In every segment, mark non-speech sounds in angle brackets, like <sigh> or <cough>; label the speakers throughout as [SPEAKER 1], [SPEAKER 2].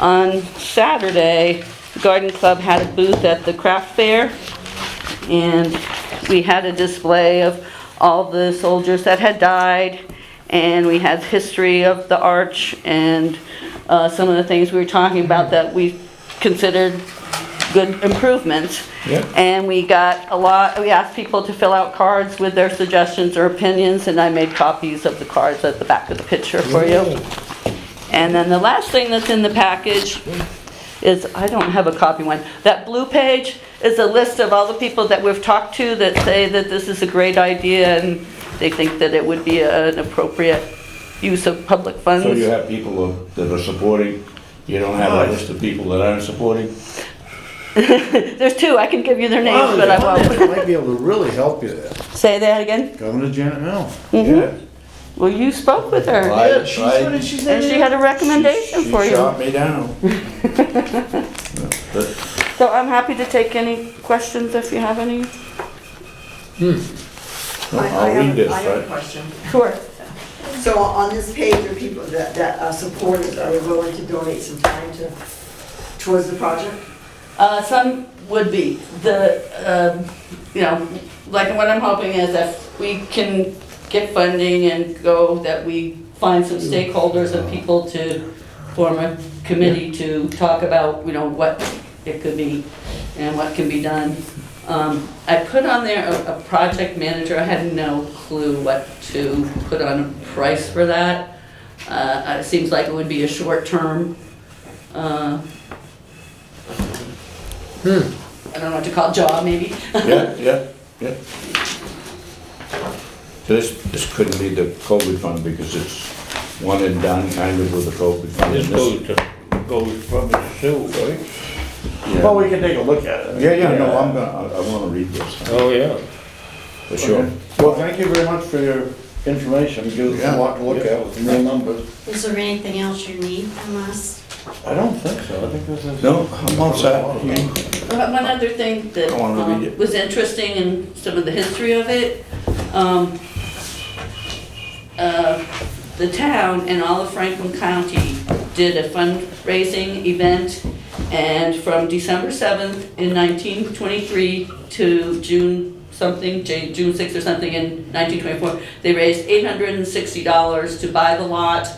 [SPEAKER 1] On Saturday, the Garden Club had a booth at the craft fair, and we had a display of all the soldiers that had died, and we had history of the arch and uh, some of the things we were talking about that we considered good improvements.
[SPEAKER 2] Yeah.
[SPEAKER 1] And we got a lot, we asked people to fill out cards with their suggestions or opinions, and I made copies of the cards at the back of the picture for you. And then the last thing that's in the package is, I don't have a copy one, that blue page is a list of all the people that we've talked to that say that this is a great idea and they think that it would be an appropriate use of public
[SPEAKER 2] So you
[SPEAKER 1] funds.
[SPEAKER 2] have people who- that are supporting, you don't have a list of people that aren't supporting?
[SPEAKER 1] There's two, I can give you their names,
[SPEAKER 3] Well,
[SPEAKER 1] but I
[SPEAKER 3] Janet
[SPEAKER 1] won't.
[SPEAKER 3] Might be able to really help you there.
[SPEAKER 1] Say that again?
[SPEAKER 3] Coming to Janet Mill.
[SPEAKER 1] Mm-hmm.
[SPEAKER 2] Yeah.
[SPEAKER 1] Well, you spoke with her
[SPEAKER 2] I-
[SPEAKER 3] Yeah, she said
[SPEAKER 2] I-
[SPEAKER 3] it, she said
[SPEAKER 1] and she
[SPEAKER 3] it.
[SPEAKER 1] had a recommendation
[SPEAKER 2] she
[SPEAKER 1] for you.
[SPEAKER 2] shot me down. But
[SPEAKER 1] So I'm happy to take any questions if you have any.
[SPEAKER 2] no,
[SPEAKER 4] I- I
[SPEAKER 2] I'll
[SPEAKER 4] have-
[SPEAKER 2] read this,
[SPEAKER 4] I have a
[SPEAKER 2] right?
[SPEAKER 4] question.
[SPEAKER 1] Sure.
[SPEAKER 4] So on this page are people that, that are supporters, are willing to donate some time to, towards the project?
[SPEAKER 1] Uh, some would be. The, um, you know, like what I'm hoping is if we can get funding and go, that we find some stakeholders and people to form a committee to talk about, you know, what it could be and what can be done. Um, I put on there a, a project manager. I had no clue what to put on a price for that. Uh, it seems like it would be a short-term, uh, I don't know what to call it, job maybe.
[SPEAKER 2] Yeah, yeah, yeah. So this, this couldn't be the COVID fund because it's one and done kind of with the COVID fund.
[SPEAKER 5] This
[SPEAKER 2] and this-
[SPEAKER 5] goes to, goes from the sewer, right?
[SPEAKER 2] yeah.
[SPEAKER 3] Well, we can take a look at it.
[SPEAKER 2] Yeah, yeah, no, I'm gonna, I- I wanna read this,
[SPEAKER 5] Oh, yeah.
[SPEAKER 2] for sure.
[SPEAKER 3] Well, thank you very much for your information. Gives us a lot to look at with some real numbers.
[SPEAKER 6] Is there anything else you need from us?
[SPEAKER 3] I don't think so. I think this is.
[SPEAKER 2] No, I'm all set. You-
[SPEAKER 1] Uh, One other thing that
[SPEAKER 2] Go on, read
[SPEAKER 1] um,
[SPEAKER 2] it.
[SPEAKER 1] was interesting in some of the history of it, um, uh, the town and all of Franklin County did a fundraising event, and from December 7th in 1923 to June something, J- June 6th or something in 1924, they raised $860 to buy the lot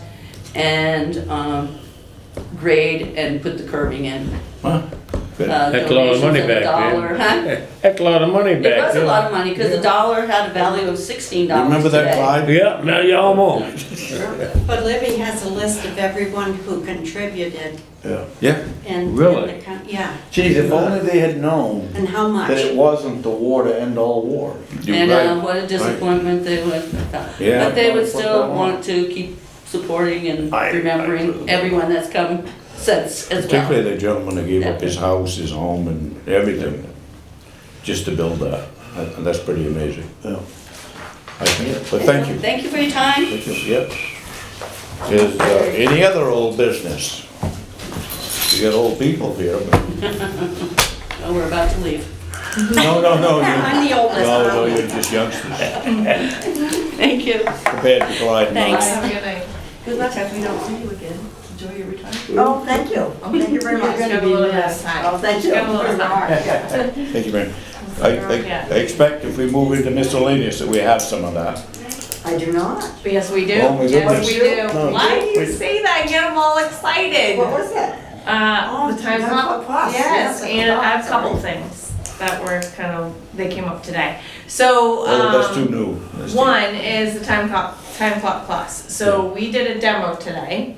[SPEAKER 1] and um, grade and put the curbing in
[SPEAKER 2] Huh? Good.
[SPEAKER 1] uh,
[SPEAKER 5] That's a lot of
[SPEAKER 1] donations
[SPEAKER 5] money
[SPEAKER 1] of a
[SPEAKER 5] back
[SPEAKER 1] dollar, huh?
[SPEAKER 5] then. That's a lot of money
[SPEAKER 1] It
[SPEAKER 5] back
[SPEAKER 1] was
[SPEAKER 5] then.
[SPEAKER 1] a lot of money, because the dollar had a value of sixteen dollars
[SPEAKER 2] Remember that
[SPEAKER 1] today.
[SPEAKER 2] Clyde?
[SPEAKER 5] Yeah, now you almost.
[SPEAKER 6] But Libby has a list of everyone who contributed
[SPEAKER 2] Yeah.
[SPEAKER 6] and.
[SPEAKER 5] Really?
[SPEAKER 6] Yeah,
[SPEAKER 3] Geez, if only they had known
[SPEAKER 6] and how
[SPEAKER 3] that it
[SPEAKER 6] much.
[SPEAKER 3] wasn't the war to end all war.
[SPEAKER 2] You're
[SPEAKER 1] And,
[SPEAKER 2] right.
[SPEAKER 1] uh, what a disappointment they would,
[SPEAKER 2] Yeah.
[SPEAKER 1] but they would still want to keep supporting and
[SPEAKER 3] I- I-
[SPEAKER 1] remembering everyone that's come since as well.
[SPEAKER 2] Particularly the gentleman that gave up his house, his home and everything, just to build that. That- That's pretty amazing.
[SPEAKER 3] Yeah.
[SPEAKER 2] I think, but thank you.
[SPEAKER 1] Thank you for your time.
[SPEAKER 2] Thank you, Yep. Is, uh, any other old business? We got old people here, but.
[SPEAKER 1] Oh, we're about to leave.
[SPEAKER 2] No, no, no, you,
[SPEAKER 6] <laughs> I'm the oldest.
[SPEAKER 2] no, no, you're just youngsters
[SPEAKER 1] Thank you.
[SPEAKER 2] compared to Clyde. and I.
[SPEAKER 6] Thanks.
[SPEAKER 1] Good luck, if we don't see you again. Enjoy your retirement.
[SPEAKER 4] Oh, thank you. Oh, Thank you very much.
[SPEAKER 7] gonna be with us.
[SPEAKER 4] Oh, thank you.
[SPEAKER 7] Go on.
[SPEAKER 4] Yeah.
[SPEAKER 2] Thank you, Mary. I, I- I expect if we move into miscellaneous that we have some of that.
[SPEAKER 4] I do not.
[SPEAKER 7] Yes, we do.
[SPEAKER 2] Oh, my Oh.
[SPEAKER 7] Yes, we
[SPEAKER 4] goodness.
[SPEAKER 7] do. Why do you
[SPEAKER 3] Wait.
[SPEAKER 7] say that? Get them all excited.
[SPEAKER 4] What was that?
[SPEAKER 7] Uh,
[SPEAKER 4] Oh,
[SPEAKER 7] the time's
[SPEAKER 4] Nine
[SPEAKER 7] up.
[SPEAKER 4] O'Clock Plus.
[SPEAKER 7] Yes,
[SPEAKER 4] Yes,
[SPEAKER 7] and I have
[SPEAKER 4] O'Clock.
[SPEAKER 7] a couple things that were kind of, they came up today. So, um.
[SPEAKER 2] Oh, that's too new. That's too-
[SPEAKER 7] One is the time clock, time clock plus. So we did a demo today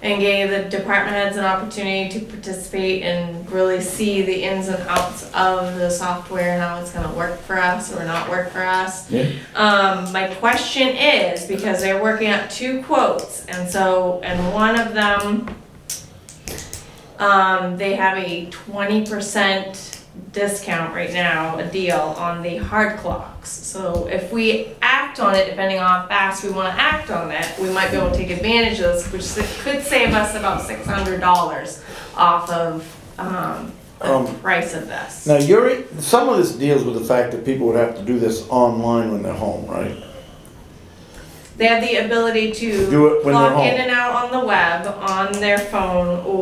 [SPEAKER 7] and gave the department heads an opportunity to participate and really see the ins and outs of the software and how it's gonna work for us or not work for us.
[SPEAKER 2] Yeah.
[SPEAKER 7] Um, my question is, because they're working out two quotes, and so, and one of them, um, they have a twenty percent discount right now, a deal on the hard clocks. So if we act on it, depending on how fast we wanna act on it, we might be able to take advantage of this, which s- could save us about six hundred dollars off of, um, the
[SPEAKER 3] Um,
[SPEAKER 7] price of this.
[SPEAKER 3] Now, you're, some of this deals with the fact that people would have to do this online when they're home, right?
[SPEAKER 7] They have the ability to
[SPEAKER 3] Do it when they're
[SPEAKER 7] log in
[SPEAKER 3] home.
[SPEAKER 7] and out on the web, on their phone, or